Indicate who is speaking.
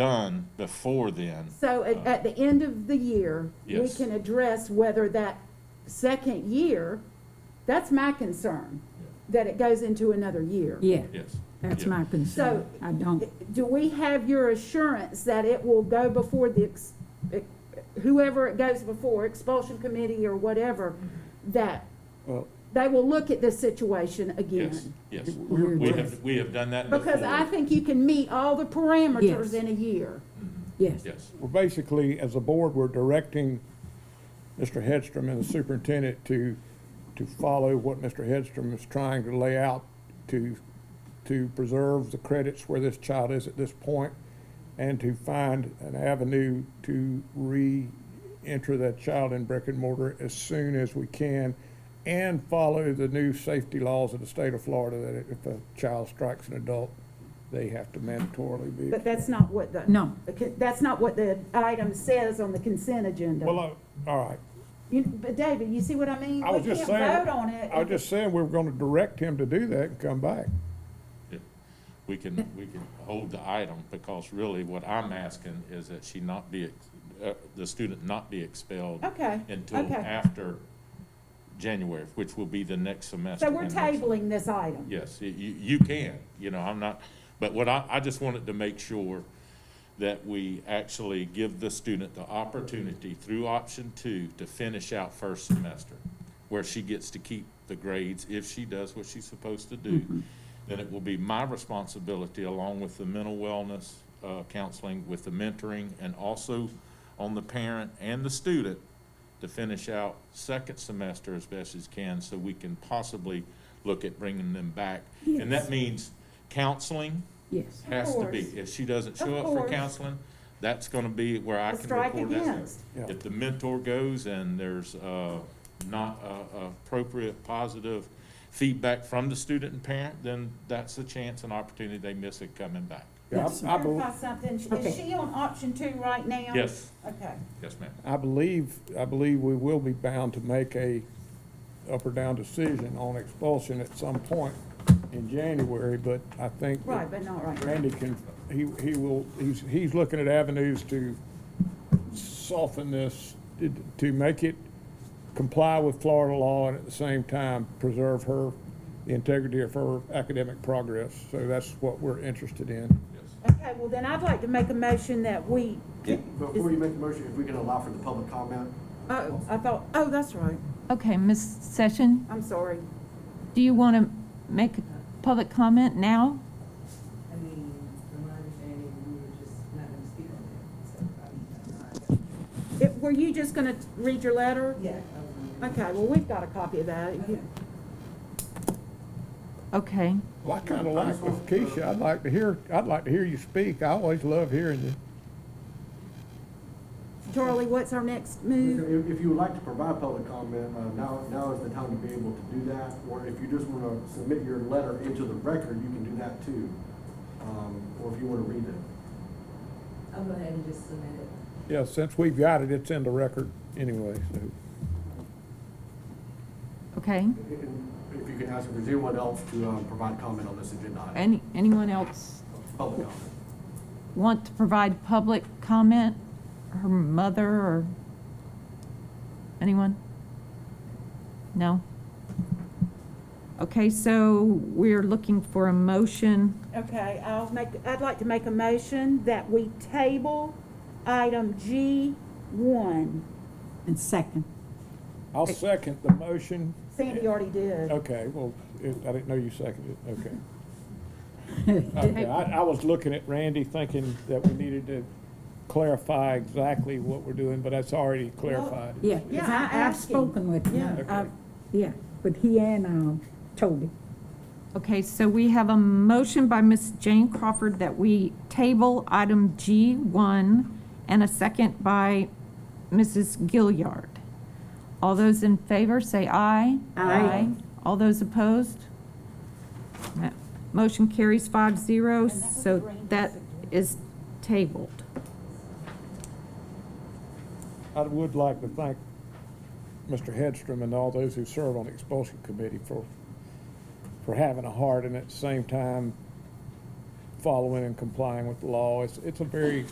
Speaker 1: done before then.
Speaker 2: So at, at the end of the year, we
Speaker 1: Yes.
Speaker 2: can address whether that second year, that's my concern, that it goes into another year.
Speaker 3: Yeah,
Speaker 1: Yes.
Speaker 3: that's
Speaker 1: Yeah.
Speaker 3: my concern.
Speaker 2: So-
Speaker 3: I don't,
Speaker 2: Do we have your assurance that it will go before the, ex- e, whoever it goes before, expulsion committee or whatever, that
Speaker 4: Well-
Speaker 2: they will look at this situation
Speaker 1: Yes,
Speaker 2: again?
Speaker 1: yes.
Speaker 3: We're
Speaker 1: We
Speaker 3: just-
Speaker 1: have, we have done that before.
Speaker 2: Because I think you can meet all the
Speaker 3: Yes.
Speaker 2: parameters in a year.
Speaker 1: Mhm.
Speaker 3: yes,
Speaker 1: Yes,
Speaker 4: Well, basically, as a board, we're directing Mr. Hedstrom and the superintendent to, to follow what Mr. Hedstrom is trying to lay out to, to preserve the credits where this child is at this point and to find an avenue to re-enter that child in brick and mortar as soon as we can and follow the new safety laws of the state of Florida that if a child strikes an adult, they have to mandatorily be.
Speaker 2: But that's not what the.
Speaker 3: No.
Speaker 2: Okay, That's not what the item says on the consent agenda.
Speaker 4: Well, I- all right.
Speaker 2: You, but David, you see what I mean?
Speaker 4: I was just
Speaker 2: We
Speaker 4: saying-
Speaker 2: can't vote on it.
Speaker 4: I was just saying, we were gonna direct him to do that and come back.
Speaker 1: yeah. we can, we can hold the item because really what I'm asking is that she not be, ex- uh, the student not be expelled
Speaker 2: Okay,
Speaker 1: until
Speaker 2: okay.
Speaker 1: after January, which will be the next semester.
Speaker 2: So we're
Speaker 1: and next-
Speaker 2: tabling this item.
Speaker 1: Yes, y- you, you can, you know, I'm not, but what I, I just wanted to make sure that we actually give the student the opportunity through option two to finish out first semester, where she gets to keep the grades if she does what she's supposed to do. Then it will be my responsibility, along with the mental wellness, uh, counseling, with the mentoring, and also on the parent and the student to finish out second semester as best as can, so we can possibly look at bringing them back. And that means counseling
Speaker 3: yes.
Speaker 1: has to be.
Speaker 2: course.
Speaker 1: If she doesn't show
Speaker 2: Of
Speaker 1: up for
Speaker 2: course.
Speaker 1: counseling, that's gonna be where I
Speaker 2: A
Speaker 1: can
Speaker 2: strike
Speaker 1: record that.
Speaker 2: against.
Speaker 4: Yeah.
Speaker 1: If the mentor goes and there's, uh, not, uh, appropriate, positive feedback from the student and parent, then that's a chance and opportunity they miss it coming back.
Speaker 4: Yeah, I- I, bel-
Speaker 2: Clarify something.
Speaker 3: Okay.
Speaker 2: Is she on option two right now?
Speaker 1: Yes,
Speaker 2: Okay.
Speaker 1: yes, ma'am.
Speaker 4: I believe, I believe we will be bound to make a up or down decision on expulsion at some point in January, but I think that
Speaker 2: Right, but not right now.
Speaker 4: Randy can, he, he will, he's, he's looking at avenues to soften this, to make it comply with Florida law and at the same time preserve her, the integrity of her academic progress. So that's what we're interested in.
Speaker 1: Yes.
Speaker 2: Okay, well then I'd like to make a motion that we,
Speaker 5: Before you make the motion, if we can allow for the public comment,
Speaker 2: oh, I thought, oh, that's right.
Speaker 6: Okay, Ms. Session,
Speaker 2: I'm sorry.
Speaker 6: do you want to make a public comment now?
Speaker 7: I mean, from my understanding, we were just not gonna speak on it, so I mean, I'm not.
Speaker 2: It, were you just gonna read your letter?
Speaker 7: Yeah. I was wondering.
Speaker 2: Okay, well, we've got a copy of that. You-
Speaker 6: Okay,
Speaker 4: Well, I kind of like with Keisha, I'd like to hear, I'd like to hear you speak. I always love hearing you.
Speaker 2: Charlie, what's our next move?
Speaker 5: if, if you would like to provide public comment, uh, now, now is the time to be able to do that. Or if you just wanna submit your letter into the record, you can do that too. Um, or if you wanna read it.
Speaker 7: I'll go ahead and just submit it.
Speaker 4: Yeah, since we've got it, it's in the record anyway, so.
Speaker 6: okay.
Speaker 5: And If you can ask if there's anyone else to, um, provide comment on this agenda item,
Speaker 6: Any, anyone else
Speaker 5: public comment.
Speaker 6: want to provide public comment? Her mother or anyone? No? Okay, so we're looking for a motion.
Speaker 2: Okay, I'll make, I'd like to make a motion that we table item G one.
Speaker 3: And second,
Speaker 4: I'll second the motion.
Speaker 2: Sandy already did.
Speaker 4: Okay, well, it- I didn't know you seconded it, okay. Okay, I, I was looking at Randy thinking that we needed to clarify exactly what we're doing, but that's already clarified.
Speaker 3: yeah. 'cause
Speaker 2: Yeah, I
Speaker 3: I- I've
Speaker 2: asked him.
Speaker 3: spoken with
Speaker 2: Yeah.
Speaker 3: him.
Speaker 4: Okay.
Speaker 3: I've- Yeah, but he and, um, Toby.
Speaker 6: Okay, so we have a motion by Ms. Jane Crawford that we table item G1 and a second by Mrs. Gilliard. All those in favor, say aye.
Speaker 3: Aye.
Speaker 6: All those opposed? Mo- Motion carries five zero, so that is tabled.
Speaker 4: I would like to thank Mr. Hedstrom and all those who serve on the expulsion committee for, for having a heart and at the same time following and complying with the law. It's, it's a very